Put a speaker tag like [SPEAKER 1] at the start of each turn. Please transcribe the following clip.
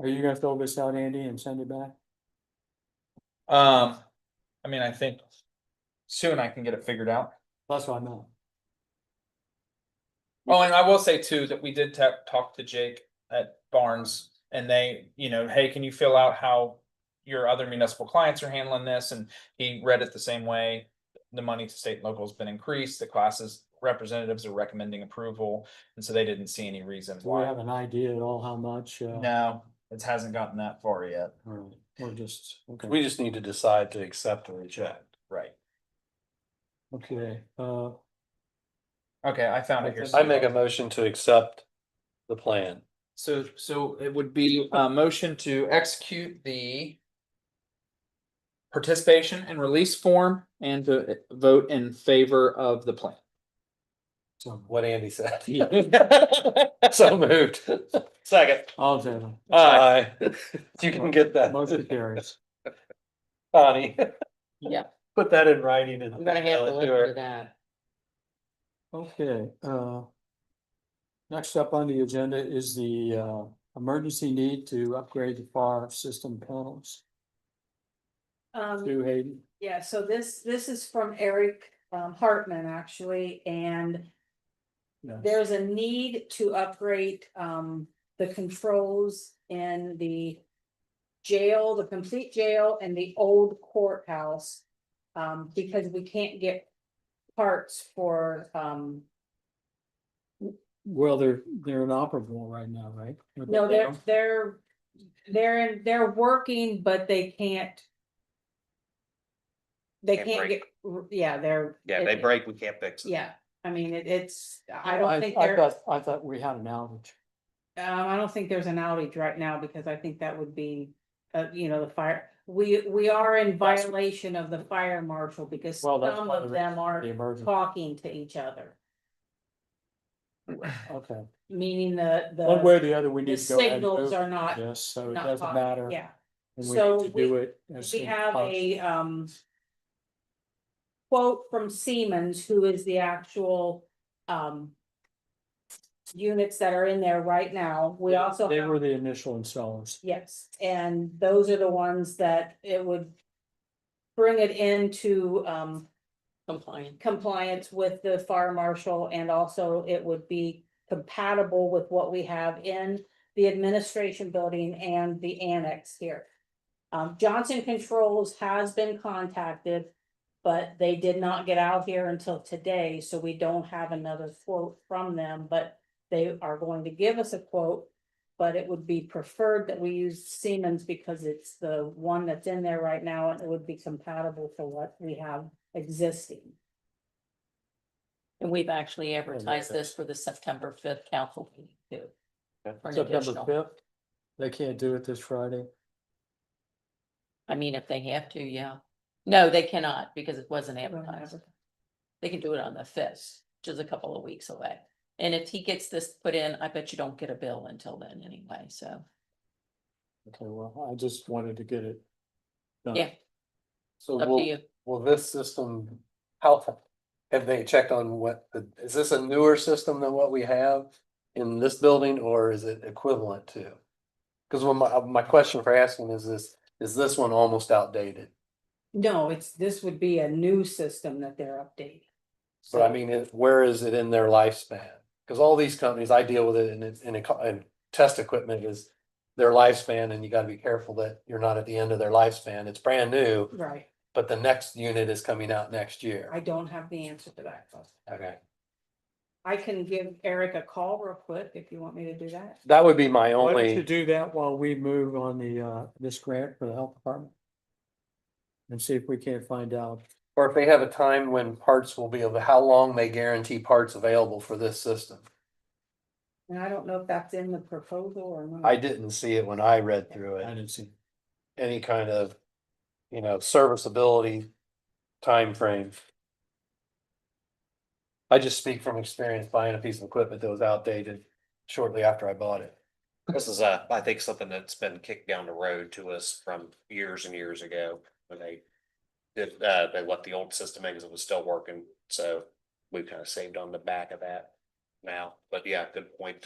[SPEAKER 1] Are you gonna fill this out, Andy, and send it back?
[SPEAKER 2] Um, I mean, I think soon I can get it figured out.
[SPEAKER 1] That's what I meant.
[SPEAKER 2] Oh, and I will say too, that we did tap, talk to Jake at Barnes and they, you know, hey, can you fill out how your other municipal clients are handling this? And he read it the same way. The money to state and local has been increased, the classes representatives are recommending approval, and so they didn't see any reason
[SPEAKER 1] Do we
[SPEAKER 2] why.
[SPEAKER 1] have an idea at all how much? uh,
[SPEAKER 2] No, it hasn't gotten that far yet.
[SPEAKER 1] Or or just, okay,
[SPEAKER 3] We just need to decide to accept or reject.
[SPEAKER 2] Right.
[SPEAKER 1] okay, uh,
[SPEAKER 2] Okay, I found it here.
[SPEAKER 3] I make a motion to accept the plan.
[SPEAKER 2] So, so it would be a motion to execute the participation and release form and to vote in favor of the plan.
[SPEAKER 1] so,
[SPEAKER 3] What Andy said. So moved. Second.
[SPEAKER 1] all in favor,
[SPEAKER 3] Aye. You can get
[SPEAKER 1] motion
[SPEAKER 3] that,
[SPEAKER 1] carries.
[SPEAKER 3] Connie.
[SPEAKER 4] Yeah.
[SPEAKER 3] Put that in writing and.
[SPEAKER 4] I'm gonna have to
[SPEAKER 3] email it
[SPEAKER 4] look
[SPEAKER 3] her.
[SPEAKER 4] into that.
[SPEAKER 1] Okay, uh. Next up on the agenda is the uh emergency need to upgrade the fire system panels
[SPEAKER 5] Um,
[SPEAKER 1] to Hayden.
[SPEAKER 5] yeah, so this, this is from Eric um, Hartman, actually, and
[SPEAKER 1] Yeah.
[SPEAKER 5] there's a need to upgrade, um, the controls in the jail, the complete jail and the old courthouse. Um, because we can't get parts for, um,
[SPEAKER 1] Well, they're, they're inoperable right now, right?
[SPEAKER 5] no, they're, they're, they're, in- they're working, but they can't. They
[SPEAKER 6] Can't
[SPEAKER 5] can't get,
[SPEAKER 6] break.
[SPEAKER 5] yeah, they're.
[SPEAKER 6] Yeah, they
[SPEAKER 5] it-
[SPEAKER 6] break, we can't fix it.
[SPEAKER 5] Yeah, I mean, it, it's, I
[SPEAKER 1] I,
[SPEAKER 5] don't think
[SPEAKER 1] I
[SPEAKER 5] there, um,
[SPEAKER 1] thought, I thought we had an outage.
[SPEAKER 5] I don't think there's an outage right now because I think that would be. Uh, you know, the fire, we, we are in
[SPEAKER 1] That's-
[SPEAKER 5] violation of the fire marshal because
[SPEAKER 1] Well, that's
[SPEAKER 5] some
[SPEAKER 1] one of
[SPEAKER 5] of
[SPEAKER 1] the-
[SPEAKER 5] them
[SPEAKER 1] The
[SPEAKER 5] are
[SPEAKER 1] emergency,
[SPEAKER 5] talking to each other.
[SPEAKER 1] okay.
[SPEAKER 5] Meaning the,
[SPEAKER 1] One way
[SPEAKER 5] the,
[SPEAKER 1] or the other, we
[SPEAKER 5] the
[SPEAKER 1] need to go ahead and
[SPEAKER 5] signals
[SPEAKER 1] move
[SPEAKER 5] are not,
[SPEAKER 1] this, so it
[SPEAKER 5] not
[SPEAKER 1] doesn't
[SPEAKER 5] talking,
[SPEAKER 1] matter.
[SPEAKER 5] yeah,
[SPEAKER 1] and we
[SPEAKER 5] So
[SPEAKER 1] need to do it. as
[SPEAKER 5] we
[SPEAKER 1] soon as
[SPEAKER 5] have
[SPEAKER 1] possible.
[SPEAKER 5] a, um. Quote from Siemens, who is the actual, um. Units that are in there right now, we also.
[SPEAKER 1] They
[SPEAKER 5] have-
[SPEAKER 1] were the initial installers.
[SPEAKER 5] Yes, and those are the ones that it would. Bring it into um
[SPEAKER 4] Compliant.
[SPEAKER 5] compliance with the fire marshal and also it would be. Compatible with what we have in the administration building and the annex here. Um, Johnson Controls has been contacted, but they did not get out here until today, so we don't have another quote from them, but. They are going to give us a quote but it would be preferred that we use Siemens because it's the one that's in there right now and it would be compatible for what we have existing.
[SPEAKER 4] And we've actually advertised this for the September fifth council meeting too.
[SPEAKER 3] Okay.
[SPEAKER 4] For an
[SPEAKER 1] September
[SPEAKER 4] additional,
[SPEAKER 1] fifth, they can't do it this Friday.
[SPEAKER 4] I mean, if they have to, yeah. No, they cannot because it wasn't advertised. They can do it on the fifth, which is a couple of weeks away. And if he gets this put in, I bet you don't get a bill until then anyway, so.
[SPEAKER 1] Okay, well, I just wanted to get it. done.
[SPEAKER 4] Yeah,
[SPEAKER 3] So
[SPEAKER 4] up to
[SPEAKER 3] will,
[SPEAKER 4] you.
[SPEAKER 3] will this system, how, have they checked on what, the- is this a newer system than what we have in this building or is it equivalent to? Because when my, my question for asking is this, is this one almost outdated?
[SPEAKER 5] No, it's, this would be a new system that they're updating.
[SPEAKER 3] But I mean, it- where is it in their lifespan? Because all these companies, I deal with it and it's, and it, co- and test equipment is their lifespan and you gotta be careful that you're not at the end of their lifespan. It's brand new,
[SPEAKER 5] Right,
[SPEAKER 3] but the next unit is coming out next
[SPEAKER 5] I
[SPEAKER 3] year.
[SPEAKER 5] don't have the answer to that.
[SPEAKER 3] Okay,
[SPEAKER 5] I can give Eric a call real quick if you want me to do that.
[SPEAKER 3] that would be my
[SPEAKER 1] Why don't you
[SPEAKER 3] only,
[SPEAKER 1] do that while we move on the, uh, this grant for the health department? And see if we can't find out.
[SPEAKER 3] or if they have a time when parts will be, available, how long they guarantee parts available for this system.
[SPEAKER 5] And I don't know if that's in the proposal or not.
[SPEAKER 3] I didn't see it when I read through
[SPEAKER 1] I
[SPEAKER 3] it,
[SPEAKER 1] didn't see.
[SPEAKER 3] any kind of, you know, serviceability timeframe. I just speak from experience buying a piece of equipment that was outdated shortly after I bought it.
[SPEAKER 6] This is a, I think something that's been kicked down the road to us from years and years ago when they. Did, uh, they let the old system in because it was still working, so we've kind of saved on the back of that now, but yeah, good point.